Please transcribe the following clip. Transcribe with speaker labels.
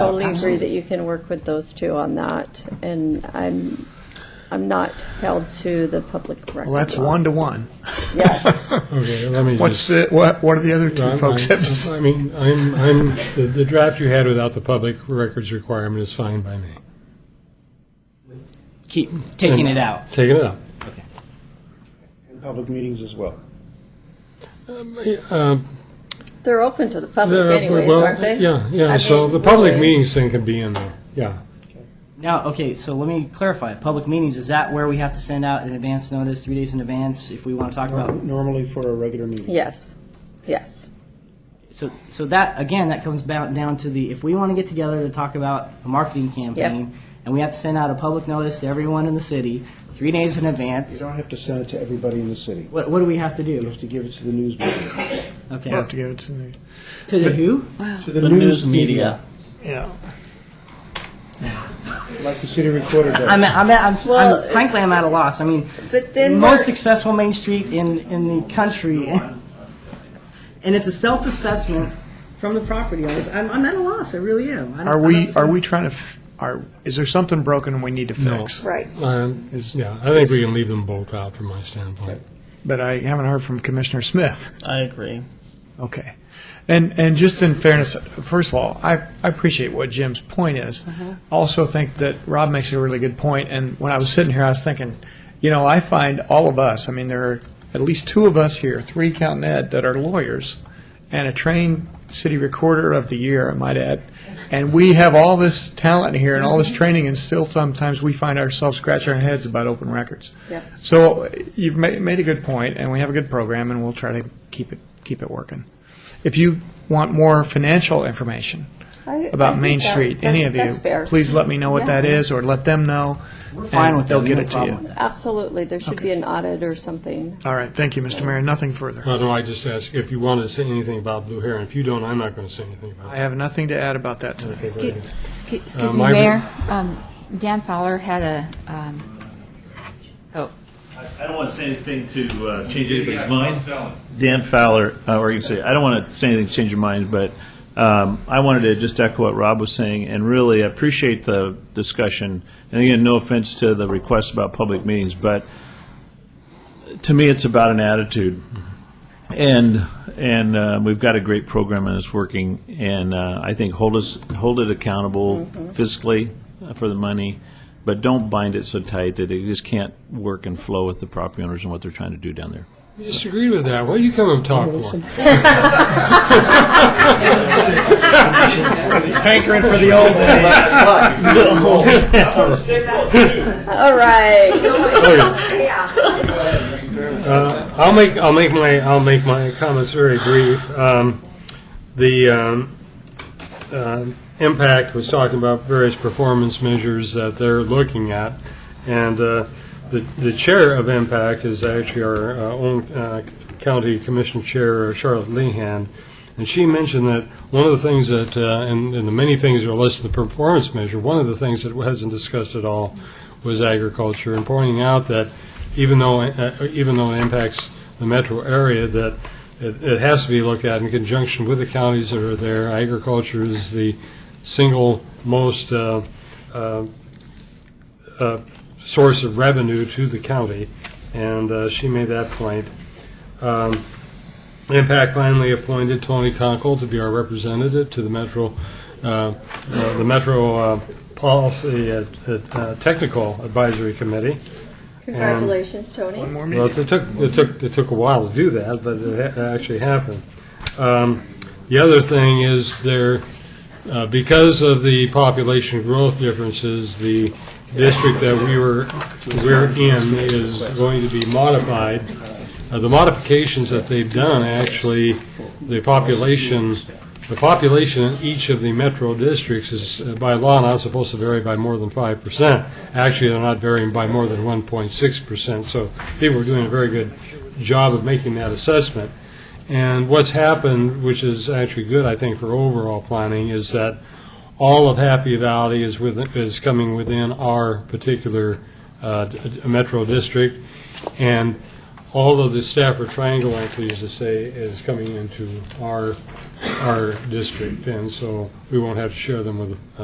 Speaker 1: totally agree that you can work with those two on that, and I'm, I'm not held to the public record.
Speaker 2: Well, that's
Speaker 1: law.
Speaker 2: one to one.
Speaker 1: Yes,
Speaker 3: Okay, let me
Speaker 2: What's
Speaker 3: just.
Speaker 2: the, what, what are the other two
Speaker 3: I'm-
Speaker 2: folks
Speaker 3: I'm-
Speaker 2: have to say?
Speaker 3: I mean, I'm, I'm, the the draft you had without the public records requirement is fine by me.
Speaker 4: Keep taking it out.
Speaker 3: Taking it out.
Speaker 5: In public meetings as well.
Speaker 3: Um,
Speaker 1: they're open to the
Speaker 3: yeah,
Speaker 1: public anyways,
Speaker 3: well,
Speaker 1: aren't they?
Speaker 3: Yeah,
Speaker 1: I
Speaker 3: yeah, so
Speaker 1: mean,
Speaker 3: the public
Speaker 1: really.
Speaker 3: meetings thing can be in there, yeah.
Speaker 4: Now, okay, so let me clarify. Public meetings, is that where we have to send out an advance notice, three days in advance, if we want to talk about?
Speaker 5: Normally for a regular meeting.
Speaker 1: Yes, yes.
Speaker 4: So, so that, again, that comes about down to the, if we want to get together to talk about a marketing campaign, and we have to send out a public notice to everyone in the city, three days in
Speaker 5: You
Speaker 4: advance,
Speaker 5: don't have to send it to everybody in the city.
Speaker 4: what, what do we have to
Speaker 5: You
Speaker 4: do?
Speaker 5: have to give it to the news media.
Speaker 4: Okay.
Speaker 2: We'll have to give it to me.
Speaker 4: To the who?
Speaker 5: To the news media.
Speaker 2: Yeah.
Speaker 5: Like the city recorder does.
Speaker 4: I'm, I'm, I'm,
Speaker 1: Well,
Speaker 4: I'm, frankly, I'm at a loss. I mean,
Speaker 1: But then
Speaker 4: most
Speaker 1: we're-
Speaker 4: successful main street in, in the country, and it's a self-assessment from the property owners. I'm, I'm at a loss. I really am. I'm,
Speaker 2: Are
Speaker 4: I'm
Speaker 2: we,
Speaker 4: not
Speaker 2: are
Speaker 4: seeing-
Speaker 2: we trying to, f- are, is there something broken and we need to
Speaker 3: No.
Speaker 2: fix?
Speaker 1: Right.
Speaker 3: Um,
Speaker 2: Is-
Speaker 3: Yeah, I think we can leave them both out from my standpoint.
Speaker 2: But I haven't heard from Commissioner Smith.
Speaker 6: I agree.
Speaker 2: Okay. And, and just in fairness, first of all, I, I appreciate what Jim's point is. Also think that Rob makes a really good point, and when I was sitting here, I was thinking, you know, I find all of us, I mean, there are at least two of us here, three counting Ed, that are lawyers, and a trained city recorder of the year, I might add. And we have all this talent here and all this training, and still sometimes we find ourselves scratching our heads about open records.
Speaker 1: Yep.
Speaker 2: So you've ma- made a good point, and we have a good program, and we'll try to keep it, keep it working. If you want more financial information
Speaker 1: I- I
Speaker 2: about
Speaker 1: think
Speaker 2: Main
Speaker 1: that-
Speaker 2: Street,
Speaker 1: that-
Speaker 2: any of you,
Speaker 1: that's fair.
Speaker 2: please let me know what that
Speaker 1: Yeah.
Speaker 2: is, or let them know,
Speaker 4: We're fine
Speaker 2: and
Speaker 4: with
Speaker 2: they'll
Speaker 4: that.
Speaker 2: get
Speaker 4: No
Speaker 2: it to
Speaker 4: problem with
Speaker 2: you.
Speaker 4: that.
Speaker 1: Absolutely, there should be an audit or something.
Speaker 2: All right, thank you, Mr. Mayor, nothing further.
Speaker 3: Uh, No, I just ask if you want to say anything about Blue Heron. If you don't, I'm not going to say anything about
Speaker 2: I
Speaker 3: it.
Speaker 2: have nothing to add about that today.
Speaker 3: Okay,
Speaker 7: Excuse excuse
Speaker 3: Uh,
Speaker 7: me,
Speaker 3: my-
Speaker 7: Mayor, Um, Dan Fowler had a, um, oh,
Speaker 8: I don't want to say anything to uh, change anybody's mind. Dan Fowler, uh, or you can say, I don't want to say anything to change your mind, but um, I wanted to just echo what Rob was saying, and really appreciate the discussion. And again, no offense to the request about public meetings, but to me, it's about an attitude. And, and uh, we've got a great program and it's working, and uh, I think hold us, hold it accountable fiscally uh, for the money, but don't bind it so tight that it just can't work and flow with the property owners and what they're trying to do down there.
Speaker 3: You disagreed with that. What do you come and talk for?
Speaker 2: Hankering for the old
Speaker 1: All
Speaker 2: Um,
Speaker 1: right.
Speaker 3: Uh, I'll make, I'll make my, I'll make my comments very brief. Um, The um, um, impact was talking about various performance measures that they're looking at, and uh, the the chair of impact is actually our uh, own uh, county commission chair, Charlotte Lehan, and she mentioned that one of the things that, uh, and and the many things that are listed in the performance measure, one of the things that wasn't discussed at all was agriculture, and pointing out that even though, uh, even though it impacts the metro area, that it it has to be looked at in conjunction with the counties that are there. Agriculture is the single most uh, uh, uh, source of revenue to the county, and uh, she made that point. Um, Impact finally appointed Tony Conkle to be our representative to the Metro, uh, uh, the Metro uh, Policy uh, uh, Technical Advisory Committee.
Speaker 1: Congratulations, Tony.
Speaker 2: more
Speaker 3: Well,
Speaker 2: meeting.
Speaker 3: it took, it took, it took a while to do that, but it ha- actually happened. Um, The other thing is there, uh, because of the population growth differences, the district that we were, we're in is going to be modified. Uh, The modifications that they've done, actually, the population, the population in each of the metro districts is uh, by law not supposed to vary by more than 5%. Actually, they're not varying by more than 1.6%, so people are doing a very good job of making that assessment. And what's happened, which is actually good, I think, for overall planning, is that all of Happy Valley is within, is coming within our particular uh, d- metro district. And all of the Stafford Triangle, I'm pleased to say, is coming into our, our district, and so we won't have to share them with uh,